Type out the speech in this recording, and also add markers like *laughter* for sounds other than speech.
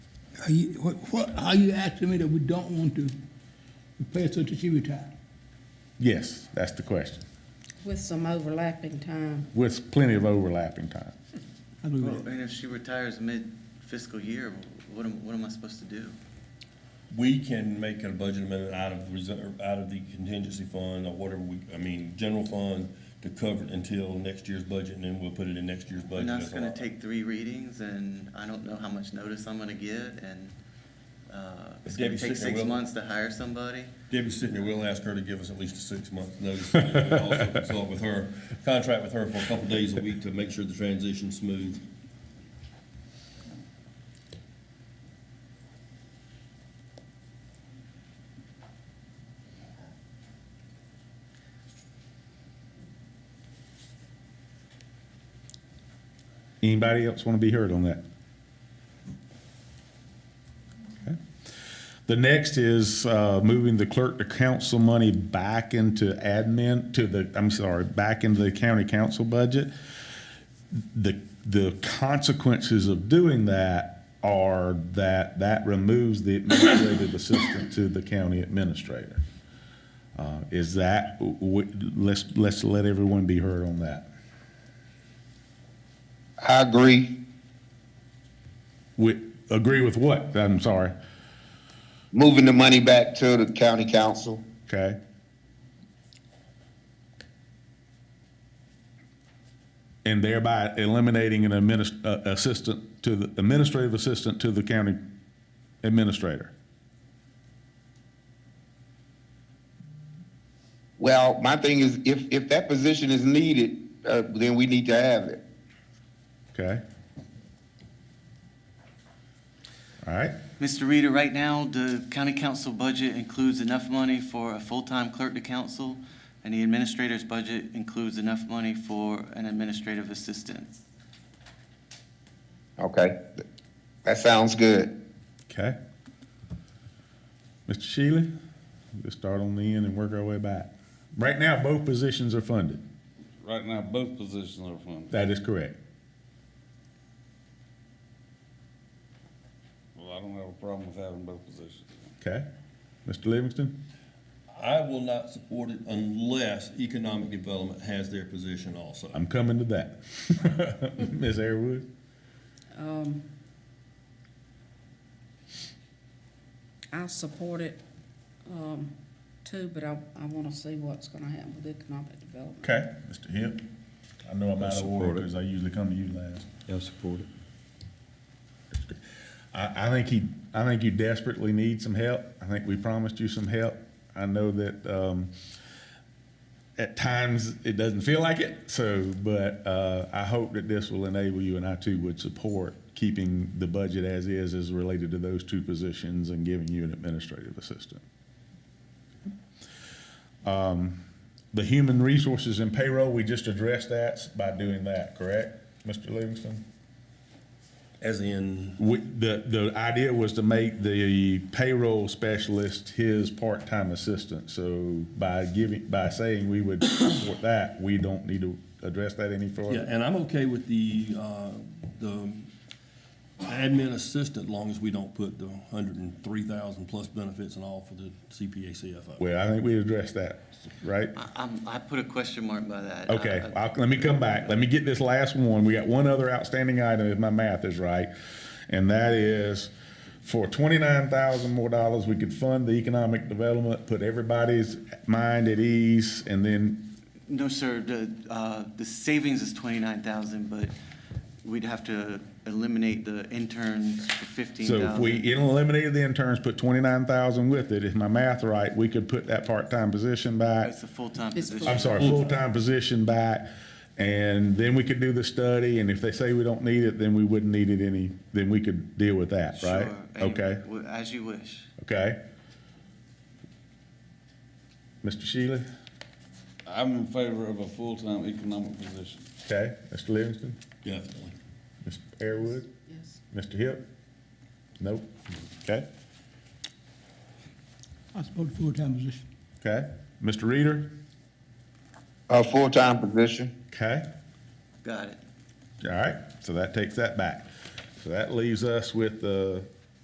Are you, what, what, are you asking me that we don't want to pay her till she retire? Yes, that's the question, With some overlapping time. with plenty of overlapping time. I believe Well, that. and if she retires mid fiscal year, what am, what am I supposed to do? We can make a budget amendment out of reserve, out of the contingency fund or whatever we, I mean, general fund to cover it until next year's budget and then we'll put it in next year's budget. And that's as gonna allotment. take three readings, and I don't know how much notice I'm gonna get, and, uh, it's gonna Debbie's take sitting there, six will- months to hire somebody. Debbie's sitting here, we'll ask her to give us at least a six-month notice. *laughs* and then we'll Also consult with her, contract with her for a couple days a week to make sure the transition's smooth. Anybody else want to be heard on that? Okay. The next is uh, moving the clerk to council money back into admin, to the, I'm sorry, back into the county council budget. The, the consequences of doing that are that that removes the administrative assistant to the county administrator. Uh, Is that, w- w- let's, let's let everyone be heard on that. I agree. We, agree with what? I'm sorry. Moving the money back to the county council. Okay. And thereby eliminating an adminis, uh, assistant to the, administrative assistant to the county administrator. Well, my thing is, if, if that position is needed, uh, then we need to have it. Okay? All right, Mr. Reader, right now, the county council budget includes enough money for a full-time clerk to council, and the administrator's budget includes enough money for an administrative assistant. Okay, that sounds good. okay. Mr. Shealy, let's start on the end and work our way back. Right now, both positions are funded. Right now, both positions are funded. That is correct. Well, I don't have a problem with having both positions. Okay? Mr. Livingston? I will not support it unless economic development has their position also. I'm coming to *laughs* that. Ms. Airwood? Um, I support it, um, too, but I, I wanna see what's gonna happen with economic development. Okay. Mr. Hip? I know I'm out of order because I usually come to you last. I'll support it. I, I think he, I think you desperately need some help. I think we promised you some help. I know that, um, at times it doesn't feel like it, so, but, uh, I hope that this will enable you and I too would support keeping the budget as is, as related to those two positions and giving you an administrative assistant. Um, the human resources and payroll, we just addressed that by doing that, correct, Mr. Livingston? As in, We, the, the idea was to make the payroll specialist his part-time assistant, so by giving, by saying we would support that, we don't need to address that any yeah, further. and I'm okay with the, uh, the admin assistant, long as we don't put the hundred and three thousand plus benefits and all for the CPA CFO. Well, I think we addressed that, right? I, I'm, I put a question mark by that. Okay, I- I- I'll, let me come back, let me get this last one, we got one other outstanding item, if my math is right, and that is, for twenty-nine thousand more dollars, we could fund the economic development, put everybody's mind at ease, and then, No, sir, the, uh, the savings is twenty-nine thousand, but we'd have to eliminate the interns for fifteen So thousand. if we eliminated the interns, put twenty-nine thousand with it, if my math right, we could put that part-time position back. It's a full-time It's position. I'm sorry, full-time position back, and then we could do the study, and if they say we don't need it, then we wouldn't need it any, then we could deal with that, right? Sure, and Okay, w- As you wish. okay. Mr. Shealy, I'm in favor of a full-time economic position. okay, Mr. Livingston, Definitely. Mr. Airwood, Yes. Mr. Hip? Nope, okay, I support the full-time position. okay, Mr. Reader, A full-time position. okay? Got it. All right, so that takes that back. So that leaves us with the